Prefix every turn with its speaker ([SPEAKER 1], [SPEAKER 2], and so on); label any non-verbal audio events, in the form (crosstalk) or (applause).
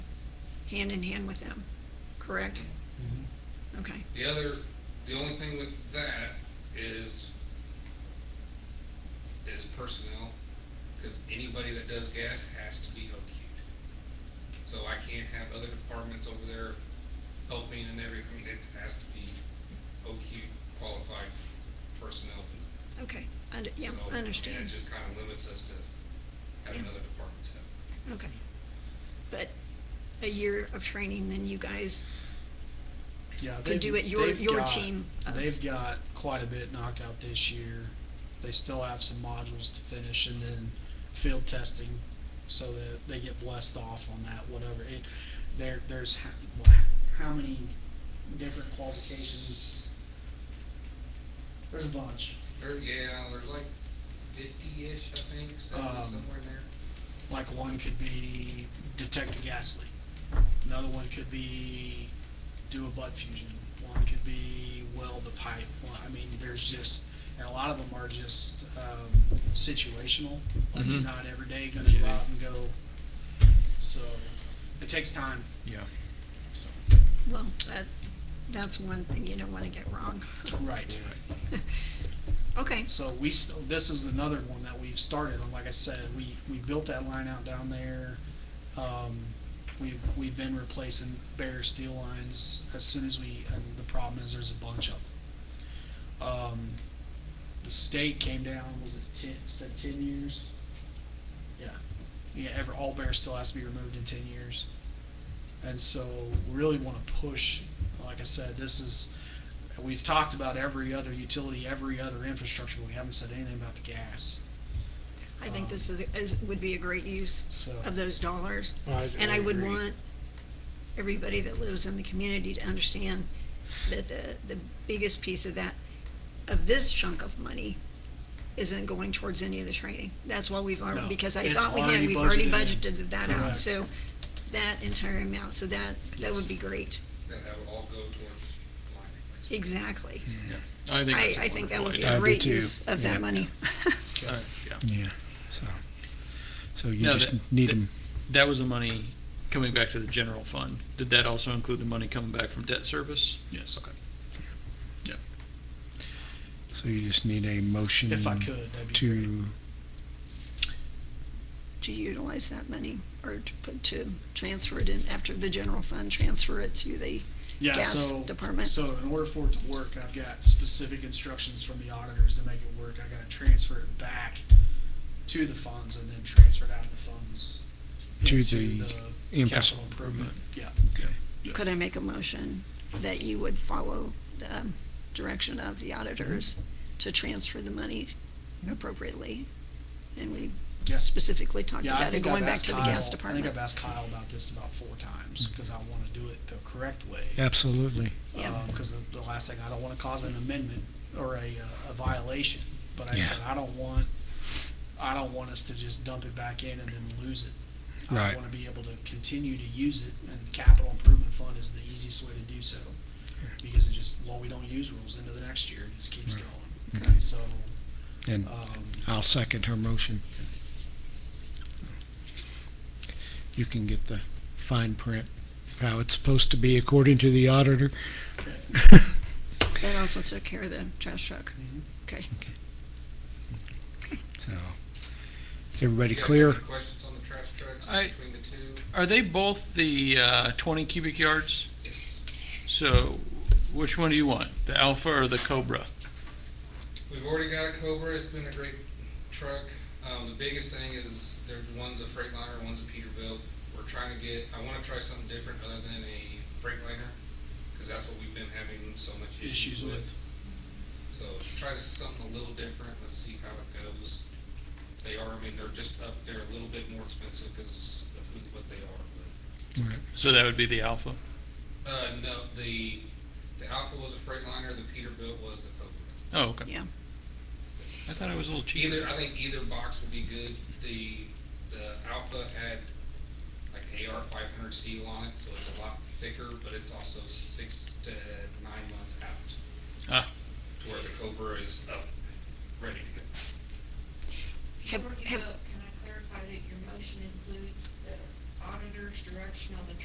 [SPEAKER 1] hand in hand with them, correct? Okay,
[SPEAKER 2] The other, the only thing with that is, is personnel, because anybody that does gas has to be OQ'd. So I can't have other departments over there helping and everything, it has to be OQ qualified personnel.
[SPEAKER 1] okay, und- yeah,
[SPEAKER 2] So,
[SPEAKER 1] I
[SPEAKER 2] mean,
[SPEAKER 1] understand,
[SPEAKER 2] It just kind of limits us to having
[SPEAKER 1] Yeah.
[SPEAKER 2] other departments help.
[SPEAKER 1] okay. But a year of training, then you guys,
[SPEAKER 3] Yeah,
[SPEAKER 1] Could
[SPEAKER 3] they've-
[SPEAKER 1] do it your-
[SPEAKER 3] they've
[SPEAKER 1] your
[SPEAKER 3] got-
[SPEAKER 1] team uh-huh. of-
[SPEAKER 3] They've got quite a bit knocked out this year. They still have some modules to finish and then field testing, so that they get blessed off on that. Whatever it, there there's how, what, how many different qualifications? There's a bunch.
[SPEAKER 2] There, yeah, there's like fifty-ish, I think, seventy,
[SPEAKER 3] Um,
[SPEAKER 2] somewhere in there.
[SPEAKER 3] Like one could be detect a gas leak. Another one could be do a butt fusion. One could be weld a pipe. One, I mean, there's just, and a lot of them are just um, situational. Like you're
[SPEAKER 4] Mhm.
[SPEAKER 3] not every day going to go out and go. So it takes time.
[SPEAKER 4] Yeah.
[SPEAKER 3] So,
[SPEAKER 1] well, that, that's one thing you don't wanna get wrong.
[SPEAKER 3] right.
[SPEAKER 1] (laughs) Okay,
[SPEAKER 3] So we still, this is another one that we've started on. Like I said, we, we built that line out down there. Um, we've, we've been replacing bare steel lines as soon as we, and the problem is there's a bunch of them. Um, the state came down, was it ten, said ten years? Yeah. Yeah, every, all bare steel has to be removed in ten years. And so we really want to push, like I said, this is, we've talked about every other utility, every other infrastructure, but we haven't said anything about the gas.
[SPEAKER 1] I think this is, is, would be a great use
[SPEAKER 3] So-
[SPEAKER 1] of those dollars.
[SPEAKER 5] I-
[SPEAKER 1] And I would
[SPEAKER 5] agree.
[SPEAKER 1] want everybody that lives in the community to understand that the, the biggest piece of that, of this chunk of money, isn't going towards any of the training. That's why we've already,
[SPEAKER 3] No,
[SPEAKER 1] because I
[SPEAKER 3] it's
[SPEAKER 1] thought we had,
[SPEAKER 3] already
[SPEAKER 1] we've already
[SPEAKER 3] budgeted in.
[SPEAKER 1] budgeted that out,
[SPEAKER 3] Correct.
[SPEAKER 1] so that entire amount, so that, that would be great.
[SPEAKER 2] that that would all go towards line replacement.
[SPEAKER 1] Exactly.
[SPEAKER 4] I think
[SPEAKER 1] I,
[SPEAKER 4] that's a
[SPEAKER 1] I think that would
[SPEAKER 4] wonderful
[SPEAKER 1] be
[SPEAKER 4] idea.
[SPEAKER 5] I
[SPEAKER 1] a
[SPEAKER 5] do
[SPEAKER 1] great
[SPEAKER 5] too.
[SPEAKER 1] use of
[SPEAKER 5] Yeah.
[SPEAKER 1] that
[SPEAKER 4] (laughs)
[SPEAKER 1] money.
[SPEAKER 4] Uh, yeah.
[SPEAKER 5] Yeah, so, so you
[SPEAKER 4] Now,
[SPEAKER 5] just
[SPEAKER 4] that-
[SPEAKER 5] need
[SPEAKER 4] that-
[SPEAKER 5] them,
[SPEAKER 4] That was the money coming back to the general fund. Did that also include the money coming back from debt service?
[SPEAKER 3] Yes.
[SPEAKER 4] Okay.
[SPEAKER 5] so you just need a motion.
[SPEAKER 3] If I could, that'd be great.
[SPEAKER 5] To,
[SPEAKER 1] To utilize that money or to put, to transfer it in after the general fund, transfer it to the
[SPEAKER 3] Yeah,
[SPEAKER 1] gas
[SPEAKER 3] so,
[SPEAKER 1] department.
[SPEAKER 3] so in order for it to work, I've got specific instructions from the auditors to make it work. I gotta transfer it back to the funds and then transfer it out of the funds.
[SPEAKER 5] To
[SPEAKER 3] into
[SPEAKER 5] the
[SPEAKER 3] the
[SPEAKER 5] infra-
[SPEAKER 3] Capital improvement, yeah.
[SPEAKER 1] Could I make a motion that you would follow the direction of the auditors
[SPEAKER 3] Mm-hmm.
[SPEAKER 1] to transfer the money appropriately? And we
[SPEAKER 3] Yes.
[SPEAKER 1] specifically talked
[SPEAKER 3] Yeah, I
[SPEAKER 1] about it
[SPEAKER 3] think
[SPEAKER 1] going
[SPEAKER 3] I've
[SPEAKER 1] back
[SPEAKER 3] asked
[SPEAKER 1] to the
[SPEAKER 3] Kyle-
[SPEAKER 1] gas
[SPEAKER 3] I think
[SPEAKER 1] department.
[SPEAKER 3] I've asked Kyle about this about four times, cause I wanna do it the correct way.
[SPEAKER 5] absolutely.
[SPEAKER 1] Yeah.
[SPEAKER 3] because Um, the, the last thing I don't want to cause an amendment or a, uh, a violation. But I
[SPEAKER 5] Yeah.
[SPEAKER 3] said I don't want I don't want us to just dump it back in and then lose it. I
[SPEAKER 5] Right.
[SPEAKER 3] want to be able to continue to use it, and the capital improvement fund is the easiest way to do so because it just well we don't use rules into the next year, it just keeps
[SPEAKER 5] Right.
[SPEAKER 3] going. And so
[SPEAKER 5] And
[SPEAKER 3] um,
[SPEAKER 5] I'll second her motion. You can get the fine print, of how it's supposed to be according to the auditor.
[SPEAKER 1] That also took care of the trash truck.
[SPEAKER 3] Mhm.
[SPEAKER 1] Okay,
[SPEAKER 5] (laughs) So, is everybody
[SPEAKER 2] You guys
[SPEAKER 5] clear?
[SPEAKER 2] have any Questions on the trash trucks
[SPEAKER 4] I-
[SPEAKER 2] between the two?
[SPEAKER 4] Are they both the uh, 20 cubic yards? So which one do you want? The Alpha or the Cobra?
[SPEAKER 2] We've already got a Cobra, it's been a great truck. Um, the biggest thing is there, one's a Freightliner, one's a Peterbilt. We're trying to get, I wanna try something different other than a Freightliner, cause that's what we've been having so much
[SPEAKER 3] issues
[SPEAKER 2] issues with.
[SPEAKER 3] with
[SPEAKER 2] So try something a little different, let's see how it goes. They are, I mean, they're just up there a little bit more expensive because of who, what they are, but.
[SPEAKER 5] Right.
[SPEAKER 4] So that would be the Alpha.
[SPEAKER 2] Uh, no, the, the Alpha was a Freightliner, the Peterbilt was the Cobra.
[SPEAKER 4] Oh, okay.
[SPEAKER 1] yeah.
[SPEAKER 4] I thought it was a little cheaper.
[SPEAKER 2] Either, I think either box would be good. The, the Alpha had like AR five hundred steel on it, so it's a lot thicker, but it's also six to nine months out.
[SPEAKER 4] Ah.
[SPEAKER 2] To where the Cobra is up, ready to go.
[SPEAKER 1] Have-
[SPEAKER 6] Before you
[SPEAKER 1] have-
[SPEAKER 6] vote, can I clarify that your motion includes the auditor's direction on the